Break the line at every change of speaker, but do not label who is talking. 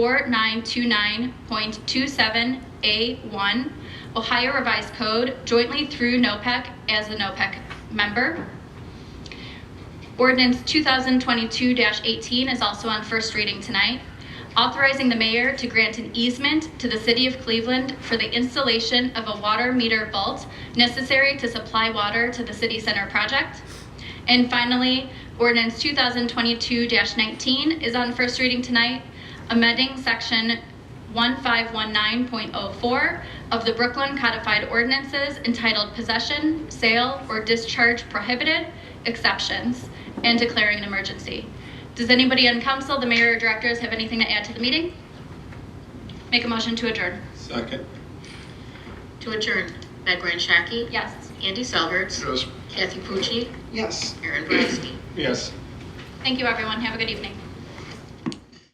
4929.27A1, Ohio Revised Code, jointly through NOPEC E as the NOPEC member. Ordinance 2022-18 is also on first reading tonight, authorizing the mayor to grant an easement to the city of Cleveland for the installation of a water meter vault necessary to supply water to the city center project. And finally, ordinance 2022-19 is on first reading tonight, amending section 1519.04 of the Brooklyn Codified Ordinances entitled Possession, Sale, or Discharge Prohibited, Exceptions, and declaring an emergency. Does anybody on council, the mayor or directors, have anything to add to the meeting? Make a motion to adjourn.
Second.
To adjourn, Meg Ryan Shaki.
Yes.
Andy Selhertz.
Yes.
Kathy Pucci.
Yes.
Aaron Brasky.
Yes.
Thank you, everyone. Have a good evening.